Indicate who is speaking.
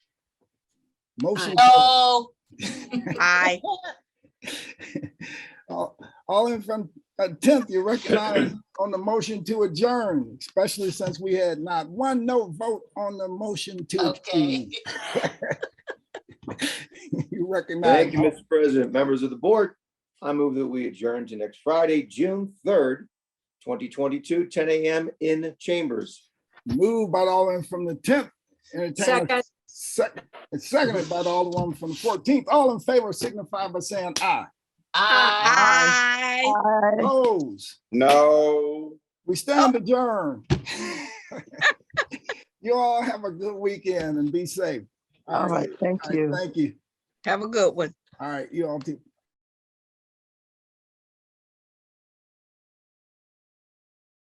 Speaker 1: Motion.
Speaker 2: Oh,
Speaker 3: Aye.
Speaker 1: All all in from, uh, tenth, you're recognized on the motion to adjourn, especially since we had not one no vote on the motion to.
Speaker 2: okay.
Speaker 1: adjourn. You recognize,
Speaker 4: Thank you, Mr. President, members of the board. I move that we adjourn to next Friday, June third, twenty twenty-two, ten AM in chambers.
Speaker 1: moved by all in from the tenth.
Speaker 5: Second,
Speaker 1: Seconded by all the one from the fourteenth. All in favor signify by saying aye.
Speaker 2: Aye.
Speaker 3: Aye.
Speaker 1: Opposed?
Speaker 4: No.
Speaker 1: We stand adjourned. You all have a good weekend and be safe.
Speaker 6: All right, thank
Speaker 1: All right,
Speaker 6: you.
Speaker 1: Thank you.
Speaker 3: Have a good one.
Speaker 1: All right, you all too.